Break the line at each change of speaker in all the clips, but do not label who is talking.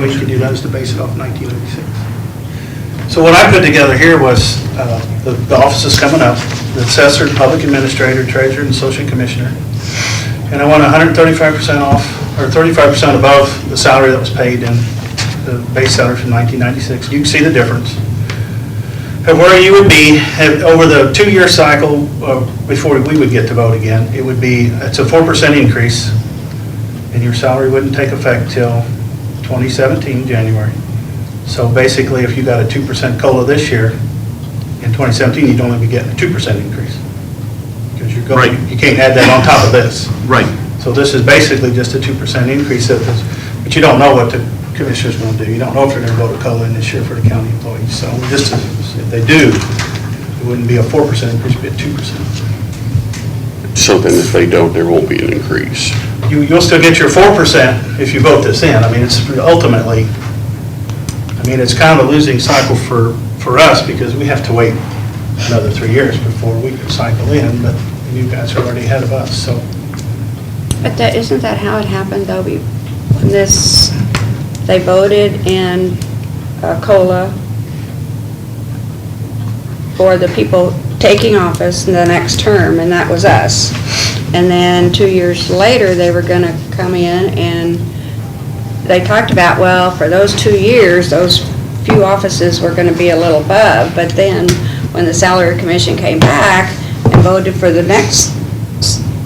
way you can do that is to base it off 1986. So what I put together here was uh, the the offices coming up, the assessor, public administrator, treasurer, and associate commissioner. And I want 135% off, or 35% above the salary that was paid in the base salary from 1996. You can see the difference. And where you would be, have- over the two-year cycle, uh, before we would get to vote again, it would be, it's a 4% increase, and your salary wouldn't take effect till 2017, January. So basically, if you got a 2% COLA this year, in 2017, you'd only be getting a 2% increase. Because you're going,
Right.
you can't add that on top of this.
Right,
So this is basically just a 2% increase of this, but you don't know what the commissioners will do. You don't know if they're going to vote a COLA in this year for the county employees. So just as- if they do, it wouldn't be a 4% increase, it'd be a 2%.
So then if they don't, there won't be an increase.
You, you'll still get your 4% if you vote this in. I mean, it's ultimately, I mean, it's kind of a losing cycle for, for us because we have to wait another three years before we can cycle in, but you guys are already ahead of us, so.
But that, isn't that how it happened, though? We- When this, they voted in uh, COLA for the people taking office in the next term, and that was us. And then two years later, they were gonna come in and they talked about, well, for those two years, those few offices were gonna be a little above, but then when the salary commission came back and voted for the next,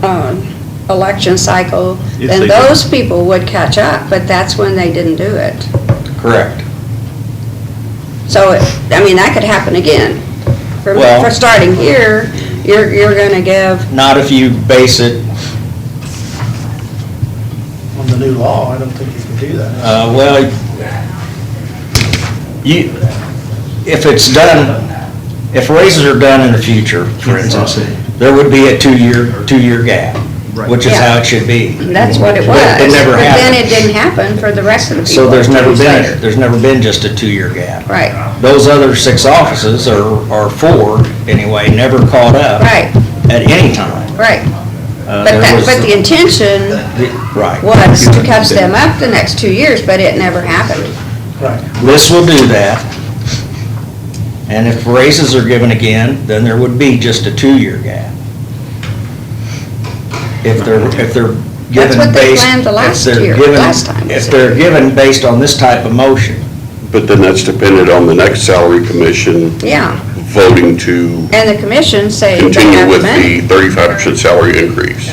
um, election cycle,
Yes,
then
they did.
those people would catch up, but that's when they didn't do it.
Correct.
So, it- I mean, that could happen again. For,
Well-
for starting here, you're, you're gonna give,
Not if you base it,
On the new law, I don't think you can do that.
uh, well, you, if it's done, if raises are done in the future, for instance, there would be a two-year, two-year gap, which is how it should be.
that's what it was.
But It never
But then it
happened.
didn't happen for the rest of the people.
So there's
two
never
years
been,
later.
there's never been just a two-year gap.
Right,
Those other six offices are, are four, anyway, never caught up.
Right.
At any time.
right.
Uh,
But
there
that,
was
but the intention
the- Right.
was to catch them up the next two years, but it never happened.
Right.
This will do that. And if raises are given again, then there would be just a two-year gap. If they're, if they're given based.
what they planned the
if
last
they're
year,
given-
last time,
If
wasn't
they're given based on this type of motion,
But then that's dependent on the next salary commission
Yeah,
voting to
and the commission say they
continue
have the
with
money.
the thirty-five percent salary increase.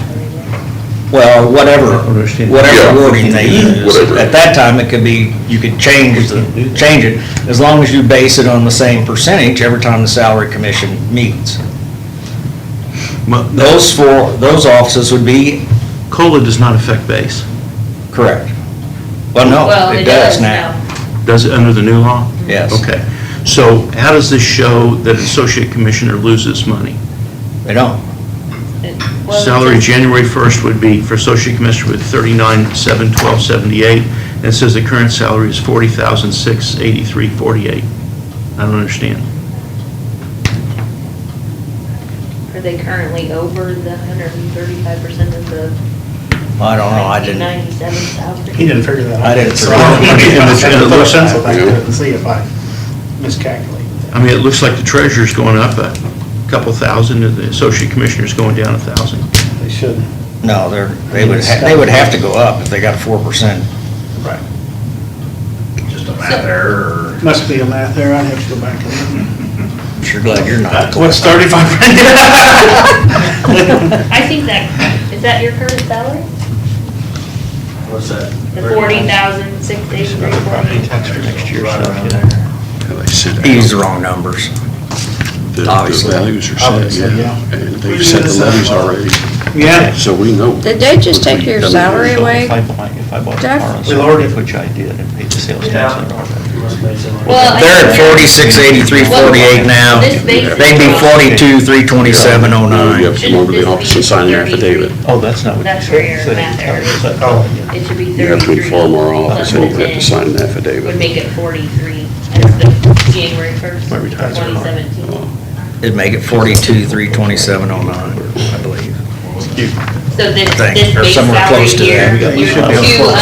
well, whatever,
Yeah.
whatever wording they use.
Whatever.
At that time, it could be, you could change the, change it, as long as you base it on the same percentage every time the salary commission meets.
Mo-
Those four, those offices would be
COLA does not affect base,
Correct. Well,
Well,
no, Oh, it does now.
does it, under the new law?
Yes.
Okay, so how does this show that associate commissioner loses money?
They don't.
Well,
Salary January 1st would be for associate commissioner with 39,712.78, and it says the current salary is 40,683.48. I don't understand.
Are they currently over the hundred and thirty-five percent of the
I don't know, I
nineteen
didn't.
ninety-seven salary?
He didn't figure that out.
I didn't
So
figure
I
it out.
don't know. I'm trying to put a pencil back there
Yeah.
and see if I miscalculated.
I mean, it looks like the treasurer's going up a couple thousand, and the associate commissioner's going down a thousand.
They shouldn't.
No, they're, they would, ha- they would have to go up if they got a four percent.
Right.
Just a matter.
Must be a math error, I'd have to go back and.
Sure glad you're not.
What's thirty-five?
I think that, is that your current salary?
What's that?
The forty thousand, six eighty-three, forty?
Tax for next year, so-
He used the wrong numbers.
The
Obviously.
values are
Obviously,
set, yeah.
yeah.
And they've set the levies already,
Yeah,
so we know.
Did they just take your salary away?
If I bought- if I bought a
Jeff?
car on
We lowered it.
Saturday, which I did, and paid the sales tax on it.
Well, I
They're at
think-
forty-six, eighty-three, forty-eight now.
This basic
They'd be
job-
forty-two, three twenty-seven, oh
You
nine.
have to come over to
Shouldn't this
the office and sign
be
an affidavit.
33?
Oh, that's not what you
That's where
said.
your math error is.
Oh.
It should be thirty-three.
You have to inform our office and you have to
plus
sign an
10 Would
affidavit.
make it forty-three as the January first,
My retirement.
twenty
Uh,
seventeen.
It'd make it forty-two, three twenty-seven, oh nine, I believe.
So this,
Thing,
this
or
base
somewhere
salary
close to that.
here,
You should be able to
two
afford